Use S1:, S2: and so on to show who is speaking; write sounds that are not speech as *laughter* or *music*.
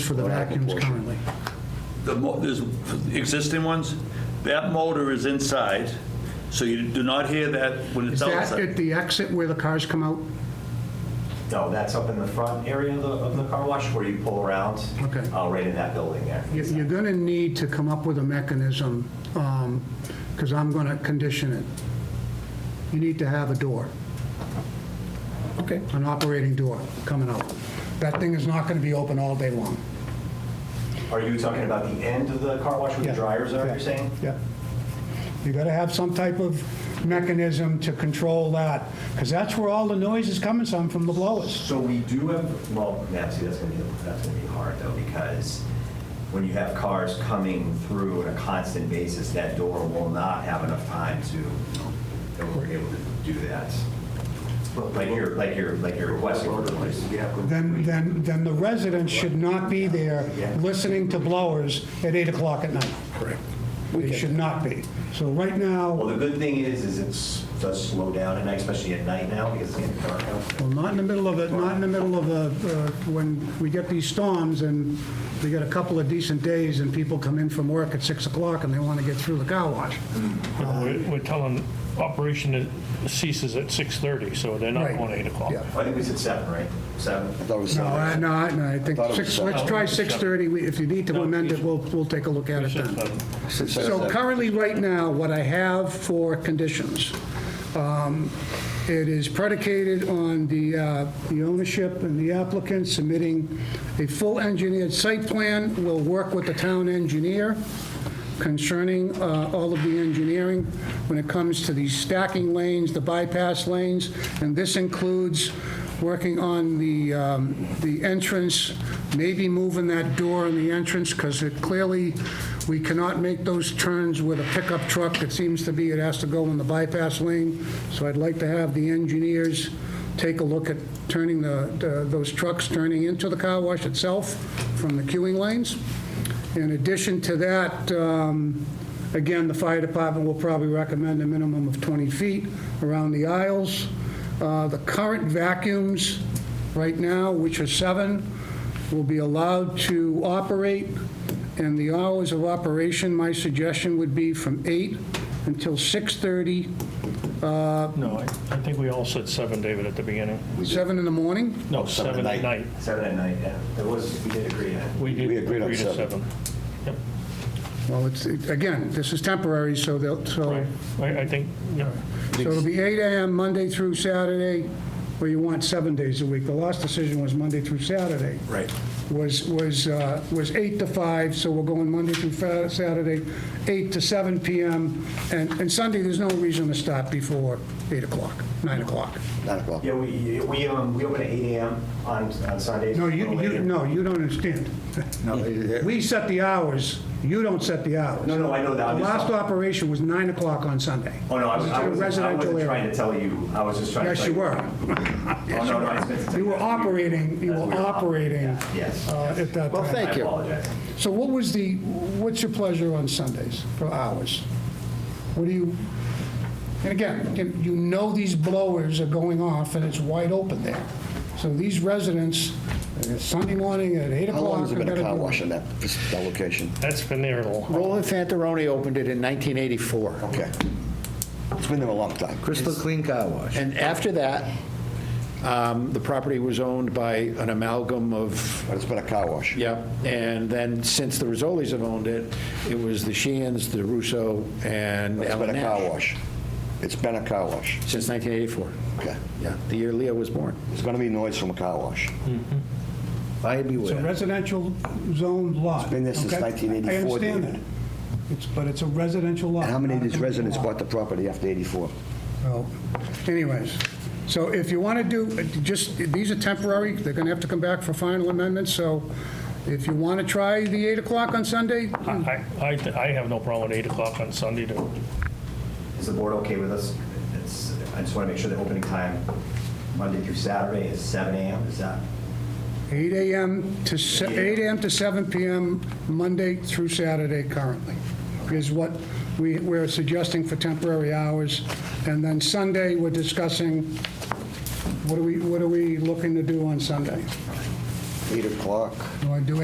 S1: for the vacuums
S2: portion.
S1: currently.
S3: The, mo- there's existing ones, that motor is inside, so you do not hear that when
S1: Is
S3: it's
S1: that
S3: outside.
S1: at the exit where the cars come out?
S4: No, that's up in the front area of the, of the car wash where you pull around.
S1: Okay.
S4: Uh, right in that building there.
S1: You- You're going to need to come up with a mechanism, because I'm going to condition it. You need to have a door,
S2: Okay.
S1: an operating door coming out. That thing is not going to be open all day long.
S4: Are you talking about the end of the car wash where the dryers are, you're saying?
S1: Yeah. You got to have some type of mechanism to control that, because that's where all the noise is coming from, from the blowers.
S4: So we do have, well, Nancy, that's gonna be, that's gonna be hard though, because when you have cars coming through on a constant basis, that door will not have enough time to, that we're able to do that. Like your, like your, like your request order place.
S1: Then, then, then the residents should not be there listening to blowers at 8 o'clock at night. Correct. They should not be. So right
S4: Well,
S1: now,
S4: the good thing is, is it's- it does slow down at night, especially at night now, because it's getting dark out.
S1: well, not in the middle of it, not in the middle of the, uh, when we get these storms and we get a couple of decent days and people come in from work at 6 o'clock and they want to get through the car wash.
S5: We're we're telling operation ceases at 6:30, so they're not
S1: Right.
S5: going 8 o'clock.
S1: Yeah.
S4: I think we said seven, right? Seven?
S2: That was
S1: No, I, no, I no, I think,
S2: Thought it was
S1: six-
S2: seven.
S1: let's try 6:30. We- If you need to
S5: No,
S1: amend it,
S5: it's-
S1: we'll, we'll take a look at it then.
S2: Six,
S1: So
S2: seven.
S1: currently, right now, what I have for conditions, um, it is predicated on the, uh, the ownership and the applicant submitting a full engineered site plan. We'll work with the town engineer concerning uh, all of the engineering when it comes to the stacking lanes, the bypass lanes, and this includes working on the, um, the entrance, maybe moving that door in the entrance, because it clearly, we cannot make those turns with a pickup truck. It seems to be it has to go in the bypass lane. So I'd like to have the engineers take a look at turning the, the- those trucks turning into the car wash itself from the queuing lanes. In addition to that, um, again, the fire department will probably recommend a minimum of 20 feet around the aisles. Uh, The current vacuums right now, which are seven, will be allowed to operate, and the hours of operation, my suggestion would be from 8 until 6:30,
S5: No, I I think we all said 7, David, at the beginning.
S1: 7 in the morning.
S5: No, 7 at night.
S4: Seven at night, yeah. That was, we did agree on that.
S5: We did
S2: We agreed on
S5: agree to
S2: seven.
S5: 7. Yep,
S1: Well, it's, it- again, this is temporary, so they'll, so
S5: right. I I think, yeah.
S1: So it'll be 8 AM Monday through Saturday, or you want seven days a week. The last decision was Monday through Saturday. Right. Was, was, uh, was 8 to 5, so we're going Monday through Fa- Saturday, 8 to 7 PM. And, and Sunday, there's no reason to stop before 8 o'clock, 9 o'clock.
S2: Nine o'clock.
S4: Yeah, we, we, um, we open at eight AM on, on Sundays.
S1: No,
S4: a
S1: you,
S4: little
S1: you,
S4: later.
S1: no, you don't understand. *laughs*
S2: No,
S1: We set the hours, you don't set the hours.
S4: No, no, I know that.
S1: The
S4: I'm just-
S1: last operation was 9 o'clock on Sunday.
S4: Oh, no, I was, I
S1: It was in a
S4: was I
S1: residential
S4: wasn't
S1: area.
S4: trying to tell you. I was just trying to.
S1: Yes,
S4: tell
S1: you were.
S4: Oh, no, no, I was meant to tell
S1: You were
S4: that's weird.
S1: operating, you
S4: That's
S1: were
S4: weird.
S1: operating
S4: Yeah,
S1: uh,
S4: Yes.
S1: at that
S2: Well,
S1: time.
S2: thank
S4: I
S2: you.
S4: apologize.
S1: So what was the, what's your pleasure on Sundays for hours? What do you, and again, you- you know these blowers are going off and it's wide open there. So these residents, uh, Sunday morning at 8
S2: How
S1: o'clock.
S2: long has it been
S1: I
S2: a
S1: gotta
S2: car
S1: do it.
S2: wash in that, that location?
S5: That's been there a long.
S6: Roland Fantaroni opened it in 1984.
S2: Okay. It's been there a long time.
S7: Crystal Clean Car Wash.
S6: And after that, um, the property was owned by an amalgam of,
S2: But it's been a car wash.
S6: yep, and then since the Rizzolis have owned it, it was the Sheehan's, the Russo, and
S2: It's
S6: Ellen
S2: been a car
S6: Nash.
S2: wash. It's been a car wash.
S6: Since 1984.
S2: Okay.
S6: Yeah, the year Leo was born.
S2: It's going to be noise from a car wash. Mm-hmm.
S6: I
S1: It's a
S6: beware.
S1: residential zoned lot.
S2: It's been there since
S1: okay?
S2: 1984,
S1: I understand
S2: David.
S1: that. It's, but it's a residential lot.
S2: And how many of
S1: not a
S2: these
S1: commercial
S2: residents
S1: lot.
S2: bought the property after 84?
S1: So anyways, so if you want to do, uh, just, these are temporary, they're going to have to come back for final amendments, so if you want to try the 8 o'clock on Sunday,
S5: I, I th- I have no problem with 8 o'clock on Sunday to,
S4: Is the board okay with us? It's, I just want to make sure the opening time, Monday through Saturday is seven AM. Is that?
S1: 8 AM to, se- 8 AM to 7 PM, Monday through Saturday currently, is what we, we're suggesting for temporary hours. And then Sunday, we're discussing, what are we, what are we looking to do on Sunday?
S2: 8 o'clock.
S1: Do I do